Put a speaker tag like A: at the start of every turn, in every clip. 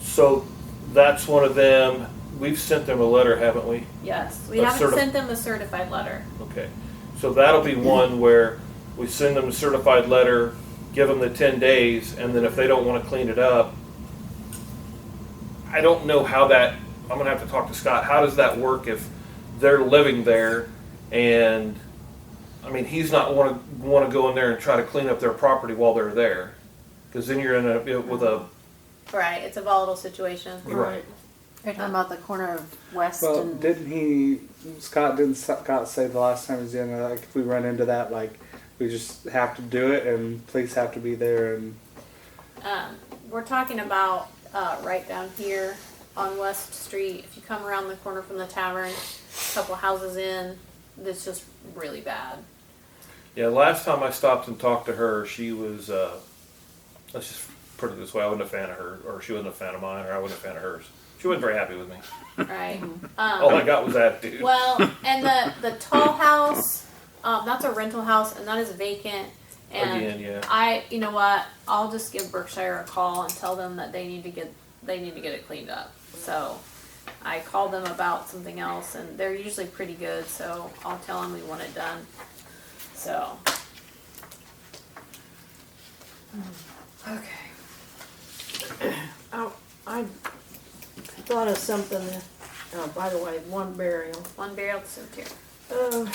A: So that's one of them. We've sent them a letter, haven't we?
B: Yes, we
A: A
B: haven't
A: certi-
B: sent them a certified letter.
A: Okay. So that'll be one where we send them a certified letter, give them the ten days, and then if they don't want to clean it up, I don't know how that, I'm gonna have to talk to Scott. How does that work if they're living there and, I mean, he's not wanna, wanna go in there and try to clean up their property while they're there? Cause then you're in a, with a,
B: Right, it's a volatile situation.
A: Right.
C: You're talking about the corner of West
D: Well,
C: and
D: didn't he? Scott didn't Scott say the last time he was in like if we run into that like we just have to do it and police have to be there and
B: Um, we're talking about uh, right down here on West Street. If you come around the corner from the tavern, a couple houses in, that's just really bad.
A: yeah, last time I stopped and talked to her, she was, uh, let's just put it this way, I wasn't a fan of her, or she wasn't a fan of mine, or I wasn't a fan of hers. She wasn't very happy with me.
B: Right.
A: All I
B: Um,
A: got was attitude.
B: well, and the the tall house, um, that's a rental house, and that is vacant. And
A: Again, yeah.
B: I, you know what? I'll just give Berkshire a call and tell them that they need to get they need to get it cleaned up. So I called them about something else, and they're usually pretty good. So I'll tell them we want it done. So
E: Hmm. Okay. Oh, I thought of something, oh, by the way, one burial.
B: one burial to cemetery.
E: Uh,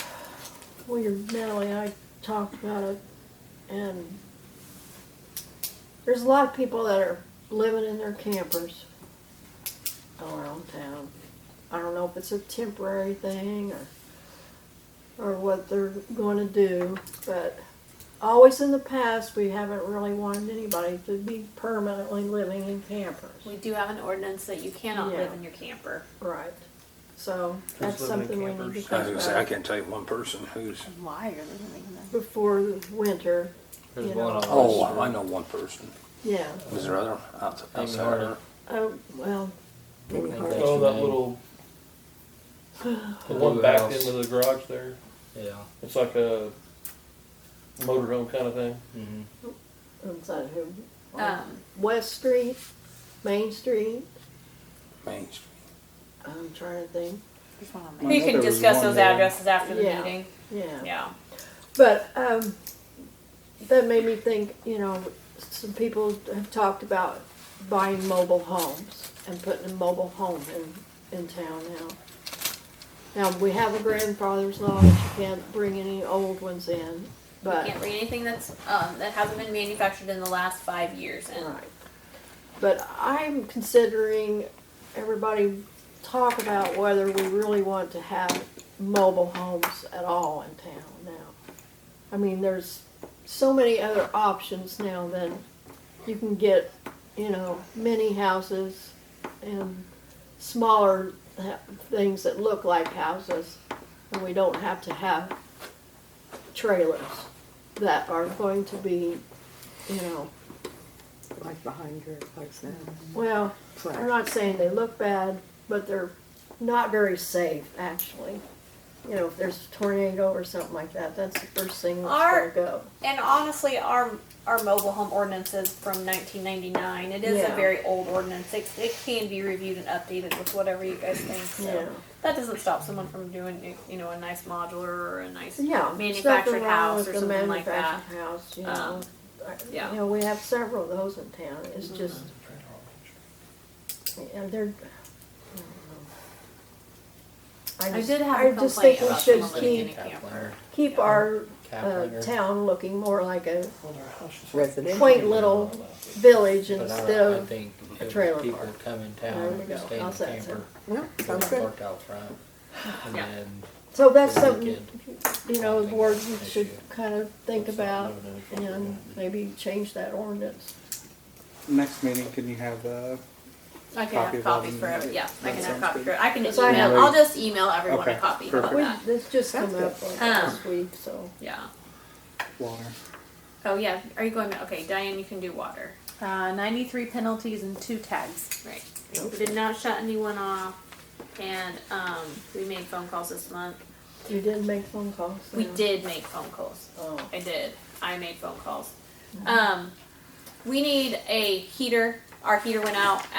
E: weirdly, I talked about it, and there's a lot of people that are living in their campers around town. I don't know if it's a temporary thing or or what they're going to do, but always in the past we haven't really wanted anybody to be permanently living in campers.
B: We do have an ordinance that you cannot
E: Yeah.
B: live in your camper.
E: Right. So
A: living
E: that's
A: in
E: something we need
A: campers?
E: to think
F: I was gonna say, I
E: about
F: can't tell you one person who's,
C: why are they living there?
E: before the winter.
G: There's
E: you
G: one
E: know.
G: on
F: oh,
G: West
F: I know one person.
E: Yeah.
F: Was there other outs- outside of her?
E: Oh, well, maybe
G: Like
E: hard.
G: that.
A: Oh, that little, the one
G: Blue
A: back
G: house.
A: into the garage there.
G: Yeah.
A: It's like a motorhome kind of thing.
G: Mm-hmm.
E: Is that who?
B: Um,
E: West Street, Main Street.
F: Main Street.
E: I'm trying to think.
C: There's one on
D: I
B: we
D: know
B: can
D: there was
B: discuss
D: one
B: those
D: there.
B: addresses after the
E: Yeah.
B: meeting.
E: Yeah.
B: Yeah.
E: But um, that made me think. You know, some people have talked about buying mobile homes and putting a mobile home in in town now. Now we have a grandfather's law that you can't bring any old ones in, but
B: Can't bring anything that's um, that hasn't been manufactured in the last five years. And
E: Right. But I'm considering everybody talk about whether we really want to have mobile homes at all in town now. I mean, there's so many other options now than you can get, you know, mini houses and smaller ha- things that look like houses. And we don't have to have trailers that are going to be, you know,
H: like behind your place now.
E: well, I'm not saying they look bad, but they're not very safe, actually. You know, if there's a tornado or something like that, that's the first thing that's
B: Our-
E: gonna go.
B: And honestly, our our mobile home ordinance is from 1999. It is a
E: Yeah.
B: very old ordinance. It, it can be reviewed and updated with whatever you guys think. So
E: Yeah.
B: that doesn't stop someone from doing you know a nice modular or a nice
E: Yeah.
B: manufactured
E: nothing wrong
B: house
E: with
B: or
E: the
B: something like that.
E: manufactured House, you
B: Um,
E: know. I-
B: yeah. Mm-hmm.
E: You know, we have several of those in town. It's just, yeah, they're. I don't know.
B: I
E: just-
B: did have
E: I
B: a
E: just
B: complaint
E: think we
B: about
E: should
B: someone living in
E: keep,
B: a camper.
E: keep our, uh,
G: Caplanger.
E: town looking more like a
H: Residential.
E: quaint little village
G: But I,
E: instead
G: I
E: of
G: think
E: a
G: if
E: trailer
G: people
E: park.
G: come in
E: There
G: town
E: we
G: and
E: go.
G: stay in
E: I'll
G: a
E: say so.
G: camper,
H: No,
G: they'll
H: sounds
C: Uh,
H: good.
G: park out front. And
B: Yeah.
G: then
E: So that's
G: for the
E: something,
G: weekend.
E: you know, the board should
G: Issue.
E: kind of think
G: That's not
E: about
G: living in a
E: and
G: property.
E: maybe change that ordinance.
D: next meeting can you have uh, the
B: I can
D: Copy
B: have
D: of
B: copies
D: all
B: for
D: the-
B: every, yeah. I
D: that
B: can have
D: sounds
B: copies
D: good.
B: for I can
E: Yes,
B: just
E: I
B: email.
D: have-
B: I'll just email everyone a
D: Okay,
B: copy. How about
D: perfect.
E: We,
B: that?
E: this just
H: Sounds
E: come up
H: good.
E: like
B: Um,
E: last week, so.
B: Yeah.
D: water?
B: Oh yeah. Are you going? To, okay, Diane, you can do water.
C: Uh, 93 penalties and two tags.
B: Right. We did not shut anyone off, and um, we made phone calls this month.
E: You didn't make phone calls?
B: We
E: no?
B: did make phone calls. Mm-hmm.
E: Oh,
B: Mm-hmm. I did. I made phone calls. Um, we need a heater. Our heater went out